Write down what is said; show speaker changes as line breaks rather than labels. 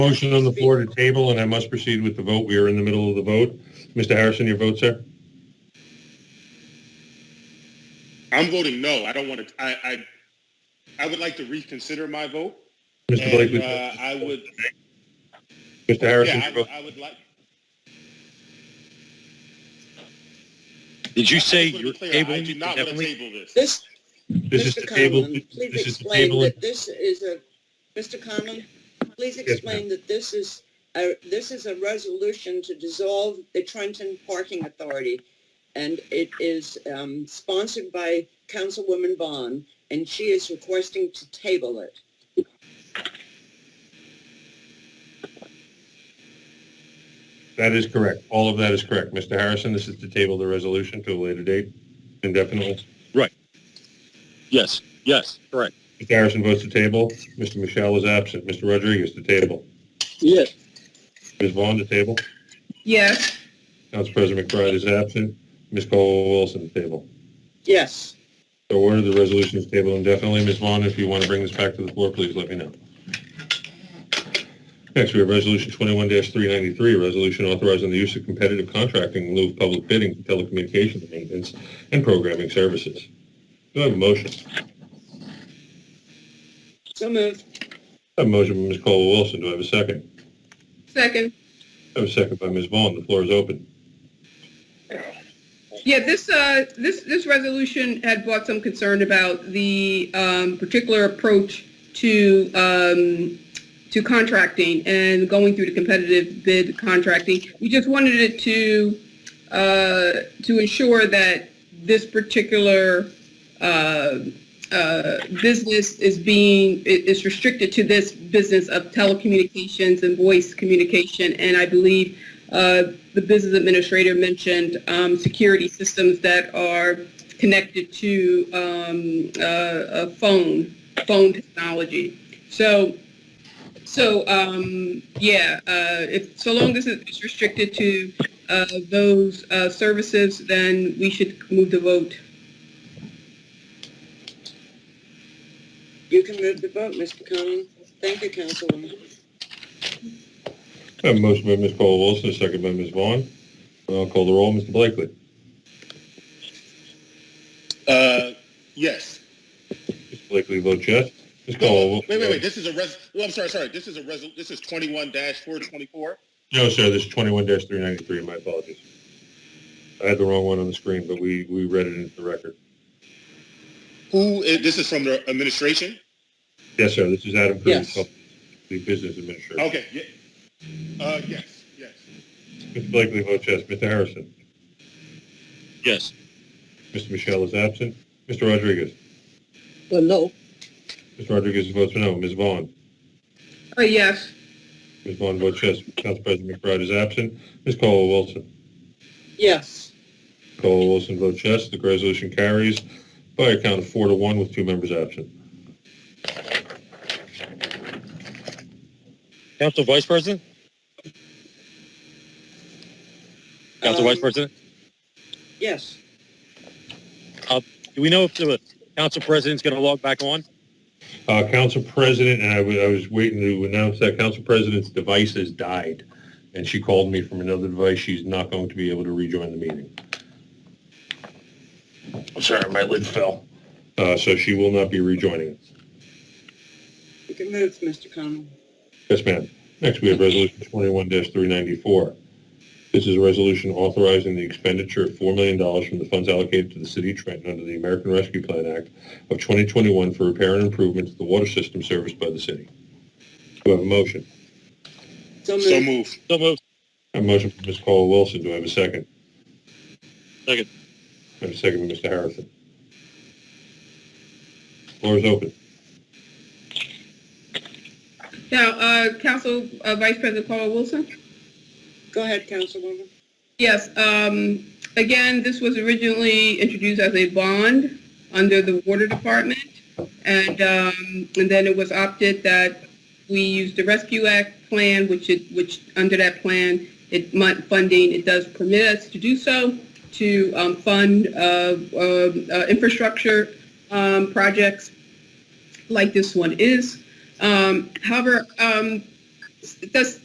Motion on the floor to table, and I must proceed with the vote. We are in the middle of the vote. Mr. Harrison, your vote, sir?
I'm voting no. I don't want to, I, I, I would like to reconsider my vote.
Mr.
And,
Blakely,
uh, I would,
Mr. Harrison,
yeah,
your vote?
I, I would like,
Did you
I
say
just
you're
want to be clear, I
tabling?
do not want to
indefinitely?
table this.
This,
This is
Mr.
the table,
Conlon,
this
please
is the
explain
table.
that this is a, Mr. Conlon, please explain that this is, a- this is a resolution to dissolve the Trenton Parking Authority. And it is um, sponsored by Councilwoman Bond, and she is requesting to table it.
That is correct. All of that is correct. Mr. Harrison, this is to table the resolution to a later date indefinitely.
Yes, yes, correct.
Mr. Harrison votes to table. Mr. Michelle is absent. Mr. Rodriguez to table.
Yes.
Ms. Vaughn to table.
Yes,
Council President McBride is absent. Ms. Colwell Wilson to table.
Yes,
So ordered, the resolution is tabled indefinitely. Ms. Vaughn, if you want to bring this back to the floor, please let me know. Next, we have Resolution 21-393, a resolution authorizing the use of competitive contracting in lieu of public bidding for telecommunications maintenance and programming services. Do I have a motion? I
so moved.
have a motion by Ms. Colwell-Wilson. Do I have a second?
second.
I have a second by Ms. Vaughn. The floor is open.
Yeah, this, uh, this, this resolution had brought some concern about the, um, particular approach to, um, to contracting and going through the competitive bid contracting. We just wanted it to, uh, to ensure that this particular, uh, uh, business is being, i- is restricted to this business of telecommunications and voice communication. And I believe, uh, the business administrator mentioned um, security systems that are connected to um, uh, a phone, phone technology. So, so um, yeah, uh, if so long as it's restricted to uh, those uh, services, then we should move the vote.
You can move the vote, Mr. Conlon. Thank you, Councilwoman.
I have a motion by Ms. Colwell-Wilson, a second by Ms. Vaughn. I'll call the roll. Mr. Blakely.
Uh, yes.
Mr. Blakely votes yes. Ms.
No,
Colwell-Wilson.
Wait, wait, wait, this is a res, well, I'm sorry, sorry, this is a res, this is twenty-one four twenty-four.
No, sir, this is twenty-one three ninety-three, my apologies. I had the wrong one on the screen, but we, we read it into the record.
Who, i- this is from the administration?
Yes, sir, this is Adam Cruz,
Yes.
the business administrator.
Okay, yeah. Uh, yes, yes.
Mr. Blakely votes yes. Mr. Harrison?
Yes,
Mr. Michelle is absent. Mr. Rodriguez?
Well, no.
Mr. Rodriguez votes no. Ms. Vaughn?
Uh, yes.
Ms. Vaughn votes yes. Council President McBride is absent. Ms. Colwell-Wilson?
Yes,
Colwell-Wilson votes yes. The resolution carries by a count of four to one with two members absent.
Council Vice President? Council Vice
Um,
President,
yes.
do we know if the Council President's going to log back on?
Uh, Council President, and I wa- I was waiting to announce that Council President's device has died, and she called me from another device. She's not going to be able to rejoin the meeting. I'm sorry, my lid fell. Uh, so she will not be rejoining.
You can move, Mr. Conlon.
Yes, ma'am. Next, we have Resolution 21-394. This is a resolution authorizing the expenditure of $4 million from the funds allocated to the city of Trenton under the American Rescue Plan Act of 2021 for repair and improvements to the water system serviced by the city. Do I have a motion?
So
So
moved.
move.
So moved.
I have A motion from Ms. Caldwell-Wilson. Do I have a second?
Second.
I have a second from Mr. Harrison. Floor is open.
Now, uh, Council uh, Vice President Paul Wilson?
Go ahead, Councilwoman.
Yes, um, again, this was originally introduced as a bond under the water department. And, um, and then it was opted that we use the Rescue Act plan, which it, which, under that plan, it might, funding, it does permit us to do so, to, um, fund, uh, um, uh, infrastructure, um, projects like this one is. Um, however, um, does,